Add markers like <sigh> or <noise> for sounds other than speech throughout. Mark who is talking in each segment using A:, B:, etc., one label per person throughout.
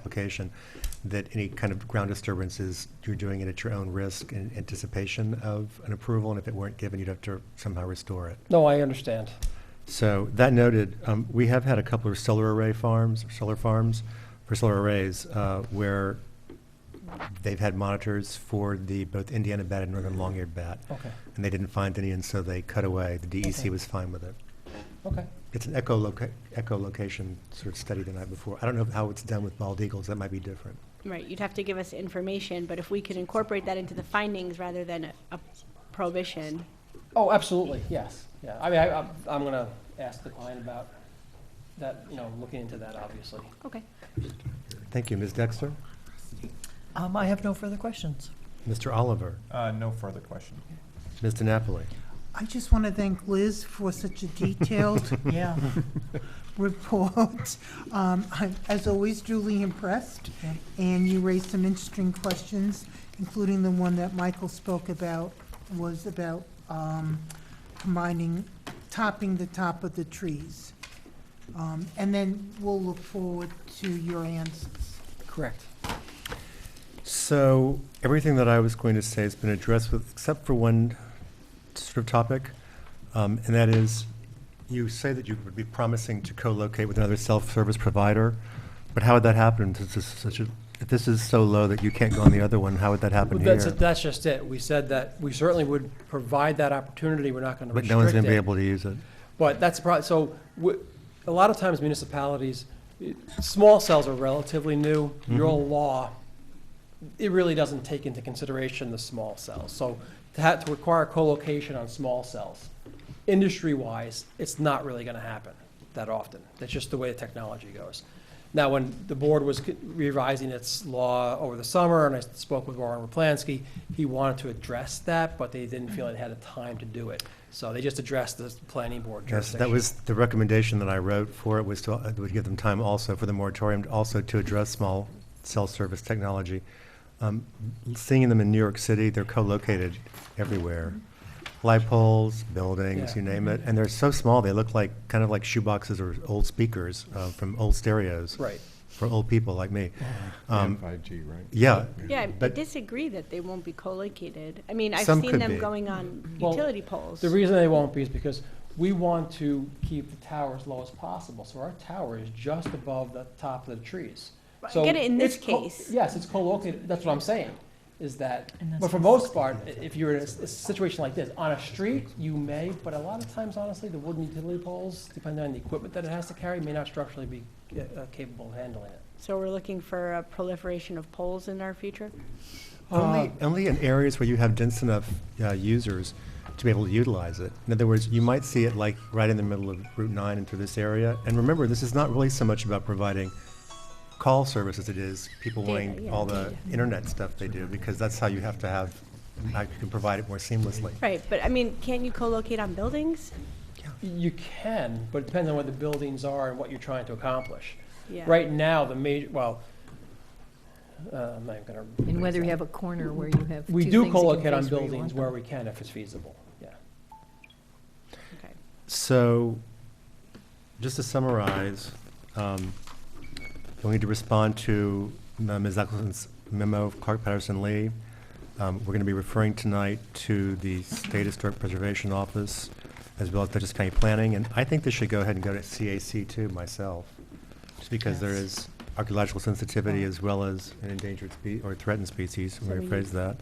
A: application, that any kind of ground disturbances, you're doing it at your own risk in anticipation of an approval, and if it weren't given, you'd have to somehow restore it.
B: No, I understand.
A: So that noted, um, we have had a couple of solar array farms, or solar farms, for solar arrays, uh, where they've had monitors for the, both Indiana bat and northern long-eared bat,
B: Okay,
A: and they didn't find any, and so they cut away. The
B: Okay.
A: DEC was fine with it.
B: okay.
A: It's an echoloca- echolocation sort of study the night before. I don't know how it's done with bald eagles, that might be different.
C: Right, you'd have to give us information, but if we could incorporate that into the findings rather than a- a prohibition,
B: Oh, absolutely, yes, yeah. I mean, I, I'm- I'm gonna ask the client about that, you know, looking into that, obviously.
C: okay.
A: Thank you, Ms. Dexter.
D: Um, I have no further questions.
A: Mr. Oliver,
E: Uh, no further questions.
A: Ms. DiNapoli.
F: I just want to thank Liz for such a detailed
D: <laughs> Yeah.
F: report. Um, I'm, as always, duly impressed, and you raised some interesting questions, including the one that Michael spoke about, was about um, combining, topping the top of the trees. Um, And then we'll look forward to your answers.
B: Correct.
A: So everything that I was going to say has been addressed with, except for one sort of topic, um, and that is, you say that you would be promising to co-locate with another self-service provider, but how would that happen since this is such a, if this is so low that you can't go on the other one, how would that happen
B: That's,
A: here?
B: that's just it. We said that we certainly would provide that opportunity. We're not gonna
A: But
B: restrict it.
A: no one's going to be able to use it.
B: But that's probably, so, w- a lot of times municipalities, it- small cells are relatively new.
A: Mm-hmm.
B: Your law, it really doesn't take into consideration the small cells. So to have to require co-location on small cells, industry-wise, it's not really gonna happen that often. That's just the way the technology goes. Now, when the board was c- revising its law over the summer, and I spoke with Warren Raplansky, he wanted to address that, but they didn't feel it had the time to do it. So they just addressed the planning board
A: Yes,
B: jurisdiction.
A: that was the recommendation that I wrote for it, was to, uh, would give them time also for the moratorium, to also to address small cell service technology. Um, Seeing them in New York City, they're co-located everywhere. Light poles, buildings,
B: Mm-hmm. Yeah. Mm-hmm.
A: you name it, and they're so small, they look like, kind of like shoeboxes or old speakers uh, from old stereos.
B: Right.
A: For old people like me. Um,
E: And 5G, right?
A: Yeah,
C: Yeah, I
A: But-
C: disagree that they won't be co-located. I mean, I've
A: Some
C: seen
A: could
C: them
A: be.
C: going on
B: Well,
C: utility poles.
B: The reason they won't be is because we want to keep the tower as low as possible, so our tower is just above the top of the trees.
C: But
B: So
C: get it in this
B: it's co-
C: case.
B: Yes, it's co-located, that's what I'm saying, is that,
D: And that's
B: but for
D: what-
B: most part, i- if you're in a s- a situation like this, on a street, you may, but a lot of times, honestly, the wooden utility poles, depending on the equipment that it has to carry, may not structurally be uh, uh, capable of handling it.
C: So we're looking for a proliferation of poles in our future? Uh,
A: Only, only in areas where you have dense enough uh, users to be able to utilize it. In other words, you might see it like right in the middle of Route 9 and through this area. And remember, this is not really so much about providing call service as it is people
C: Data,
A: wanting
C: yeah,
A: all the
C: data.
A: internet stuff they do, because that's how you have to have, how you can provide it more seamlessly.
C: Right, but I mean, can't you co-locate on buildings?
B: You can, but depending on what the buildings are and what you're trying to accomplish.
C: Yeah.
B: Right now, the major, well, uh, I'm not even gonna.
D: And whether you have a corner where you have
B: We do
D: two things you can
B: co-locate on
D: place where you
B: buildings
D: want
B: where
D: them.
B: we can if it's feasible, yeah.
C: Okay.
A: So, just to summarize, um, you'll need to respond to uh, Ms. Eccleston's memo of Clark Patterson Lee. Um, We're going to be referring tonight to the State Historic Preservation Office, as well as Dutchess County Planning, and I think this should go ahead and go to CAC too, myself, just because there is archaeological sensitivity as well as an endangered spe, or threatened species, let me rephrase that.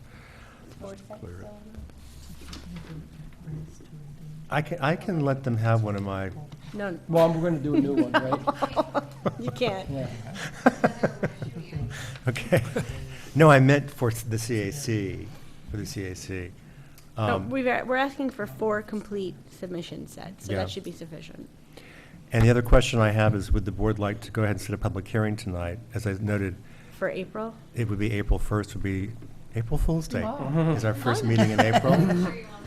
A: I can, I can let them have one of my
C: No,
B: Well, we're gonna do a new one,
D: <laughs>
B: right?
C: <laughs> you can't.
B: Yeah.
A: Okay. No, I meant for the CAC, for the CAC.
C: No,
A: Um,
C: we've, a- we're asking for four complete submission sets, so
A: Yeah.
C: that should be sufficient.
A: And the other question I have is, would the board like to go ahead and set a public hearing tonight? As I noted,
C: For April?
A: it would be April 1st would be, April Fool's Day is our first meeting in April.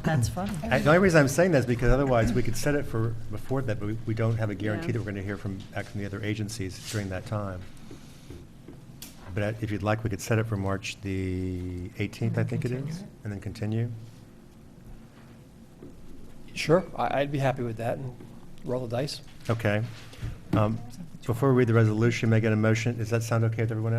D: That's funny.
A: I- The only reason I'm saying that is because otherwise, we could set it for, before that, but we- we don't have a guarantee
C: Yeah.
A: that we're going to hear from, back from the other agencies during that time. But I- if you'd like, we could set it for March the 18th, I think it is, and then continue.
B: Sure, I, I'd be happy with that and roll the dice.
A: Okay. Um, Um, Before we read the resolution, may I get a motion? Does that sound okay with everyone else?